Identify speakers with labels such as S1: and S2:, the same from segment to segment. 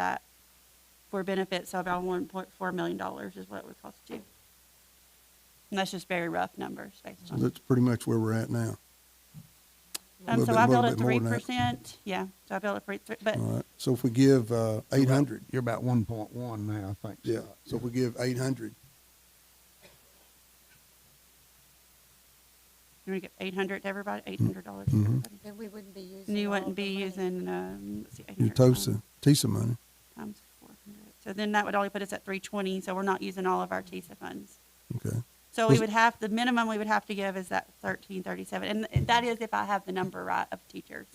S1: that for benefits of about one point four million dollars is what it would cost you. And that's just very rough numbers based
S2: So
S1: on.
S2: that's pretty much where we're at now.
S1: Um,
S2: little
S1: so
S2: bit-
S1: I
S2: little
S1: built it
S2: bit more
S1: three
S2: than that.
S1: percent, yeah, so I built it three, three- but
S3: Uh,
S2: All right, so if we give, uh, eight hundred,
S4: You're about one point one now, I think.
S2: yeah,
S4: Scott.
S2: so if we give eight hundred,
S1: you're gonna get eight hundred to everybody, eight hundred dollars to
S2: Mhm.
S1: everybody.
S5: Then we wouldn't be using.
S1: And you
S5: all
S1: wouldn't
S5: the
S1: be
S5: money.
S1: using, um, let's see, eight
S2: your
S1: hundred.
S2: TOSA, TISA money,
S1: Times four hundred, so then that would only put us at three twenty, so we're not using all of our TISA funds.
S2: okay,
S1: So we
S2: Was-
S1: would have, the minimum we would have to give is that thirteen thirty-seven, and that is if I have the number right of teachers.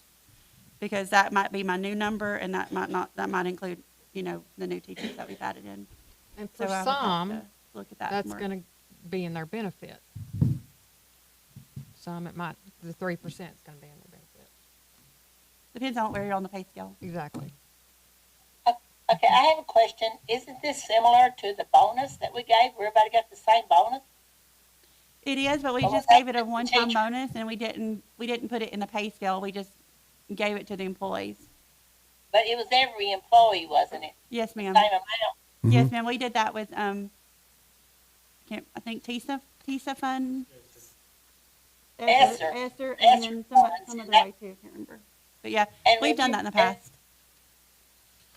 S1: Because that might be my new number, and that might not, that might include, you know, the new teachers that we've added in.
S6: And
S1: So
S6: for
S1: I would have
S6: some,
S1: to Look at that.
S6: that's
S1: more.
S6: gonna be in their benefit. Some, it might, the three percent's gonna be in their benefit.
S1: Depends on where you're on the pay scale.
S6: Exactly.
S3: Okay, I have a question. Isn't this similar to the bonus that we gave? Everybody got the same bonus?
S1: It is, but we
S3: Well,
S1: just
S3: that's
S1: gave it a one-time
S3: teacher.
S1: bonus, and we didn't, we didn't put it in the pay scale, we just gave it to the employees.
S3: But it was every employee, wasn't it?
S1: Yes, ma'am.
S3: Same amount.
S1: Yes, ma'am, we did that with, um, can't, I think TISA, TISA fund?
S3: Esther.
S1: Esther, and
S3: Esther
S1: then some,
S3: funds,
S1: some
S3: and
S1: other
S3: that-
S1: way too, I can't remember. But yeah,
S3: And
S1: we've done that in the past.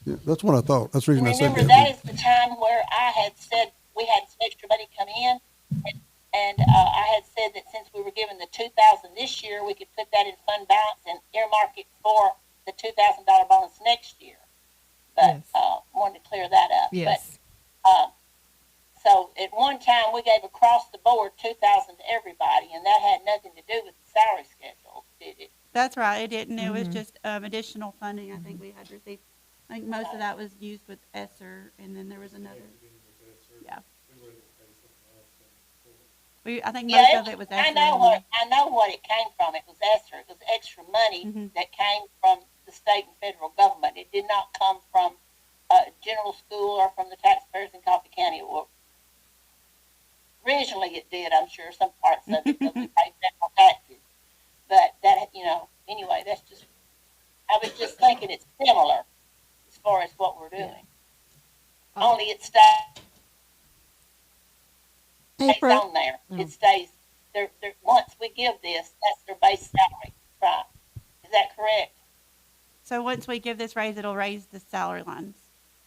S2: yeah, that's what I thought, that's the reason I said
S3: Remember,
S2: that.
S3: that is the time where I had said we had some extra money come in. and- And, uh, I had said that since we were given the two thousand this year, we could put that in fund balance and earmark it for the two thousand dollar bonus next year. But,
S6: Yes.
S3: uh, wanted to clear that up. But
S6: Yes,
S3: Um, so at one time, we gave across the board two thousand to everybody, and that had nothing to do with the salary schedule, did it?
S1: That's right, it didn't, it was
S6: Mhm.
S1: just, um, additional funding I think we had received. I think most of that was used with Esther, and then there was another. Yeah. We, I think
S3: Yeah,
S1: most
S3: it
S1: of it was Esther.
S3: I know
S1: and-
S3: what I know what it came from. It was extra. It was extra money
S1: Mhm.
S3: that came from the state and federal government. It did not come from uh, general school or from the taxpayers in Coffee County. Well, originally it did. I'm sure some parts of it because we paid federal taxes. But that you know anyway. That's just. I was just thinking it's similar as far as what we're doing.
S6: Oh.
S3: Only it stays stays
S5: April,
S3: on there.
S6: Mm.
S3: It stays, they're, they're, once we give this, that's their base salary, right? Is that correct?
S1: So once we give this raise, it'll raise the salary lines.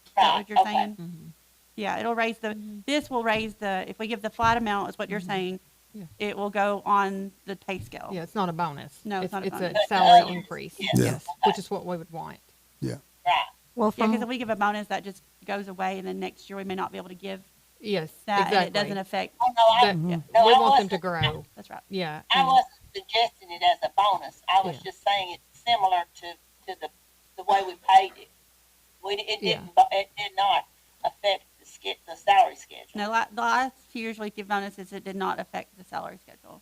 S1: Is that
S3: Right.
S1: what you're
S3: okay.
S1: saying?
S6: Mhm.
S1: Yeah, it'll raise the,
S3: mm-hmm.
S1: this will raise the, if we give the flat amount, is what you're
S6: Mhm.
S1: saying,
S6: Yeah.
S1: it will go on the pay scale.
S6: yeah, it's not a bonus.
S1: No, it's not a
S6: It's
S1: bonus.
S6: a salary increase,
S3: Yeah.
S6: yes, which is what we would want.
S3: Right.
S5: well,
S1: Yeah,
S6: Uh-huh.
S1: because
S5: from,
S1: if we give a bonus, that just goes away, and then next year we may not be able to give
S6: Yes,
S1: that, and it
S6: exactly.
S1: doesn't affect,
S3: Oh, no, I,
S6: But
S1: yeah,
S3: no,
S6: we
S3: I
S6: want them to
S3: wasn't-
S6: grow,
S1: that's right.
S6: yeah.
S3: I
S6: and-
S3: wasn't suggesting it as a bonus. I was
S6: Yeah.
S3: just saying it's similar to, to the, the way we paid it. We, it
S6: Yeah.
S3: didn't, bu- it did not affect the ske- the salary schedule.
S1: No, la- the last few years we give bonuses, it did not affect the salary schedule.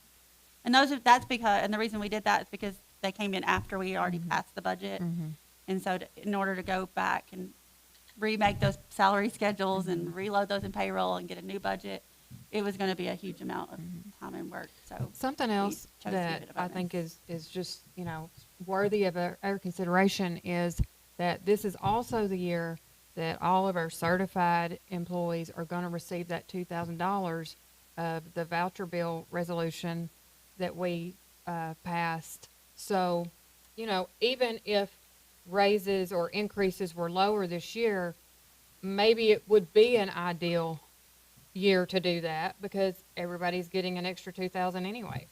S1: And those, are- that's because, and the reason we did that is because they came in after we already
S6: Mhm.
S1: passed the budget.
S6: Mhm.
S1: And so to- in order to go back and remake those salary schedules
S6: Mm-hmm.
S1: and reload those in payroll and get a new budget, it was going to be a huge amount of
S6: Mm-hmm.
S1: time and work, so.
S6: Something else
S1: chose to
S6: that
S1: leave it
S6: I
S1: alone.
S6: think is, is just, you know, worthy of our, our consideration is that this is also the year that all of our certified employees are gonna receive that two thousand dollars of the voucher bill resolution that we, uh, passed. So, you know, even if raises or increases were lower this year, maybe it would be an ideal year to do that because everybody's getting an extra two thousand anyway.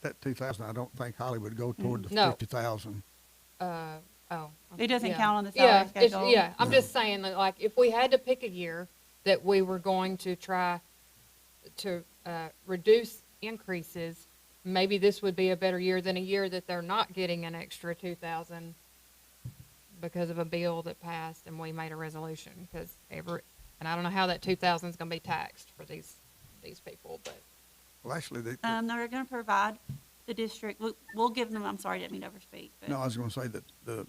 S4: That two thousand, I don't think Hollywood go toward
S3: Mm.
S4: the
S6: No.
S4: fifty thousand.
S6: uh, oh.
S1: It doesn't
S6: yeah.
S1: count on the
S6: yeah,
S1: salary
S6: it's-
S1: schedule.
S6: Yeah, I'm just saying that, like, if we had to pick a year that we were going to try to uh, reduce increases, maybe this would be a better year than a year that they're not getting an extra two thousand because of a bill that passed and we made a resolution. Because every, and I don't know how that two thousand is going to be taxed for these these people, but
S4: Well, actually, they,
S1: Um, they're going to provide the district, we'll, we'll give them, I'm sorry, I didn't mean to overspeak, but.
S4: no, I was gonna say that the,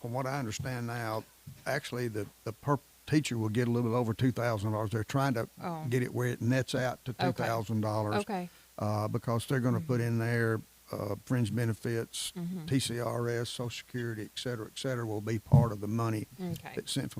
S4: from what I understand now, actually, the, the per, teacher will get a little bit over two thousand dollars. They're trying to
S6: oh,
S4: get it where it nets out to two
S6: Okay.
S4: thousand dollars.
S6: okay,
S4: Uh, because they're gonna put in there, uh, fringe
S1: Mm-hmm.
S6: Mm-hmm.
S4: benefits, TCRS, social security, et cetera, et cetera, will be part of the money
S6: Okay.
S4: that's sent from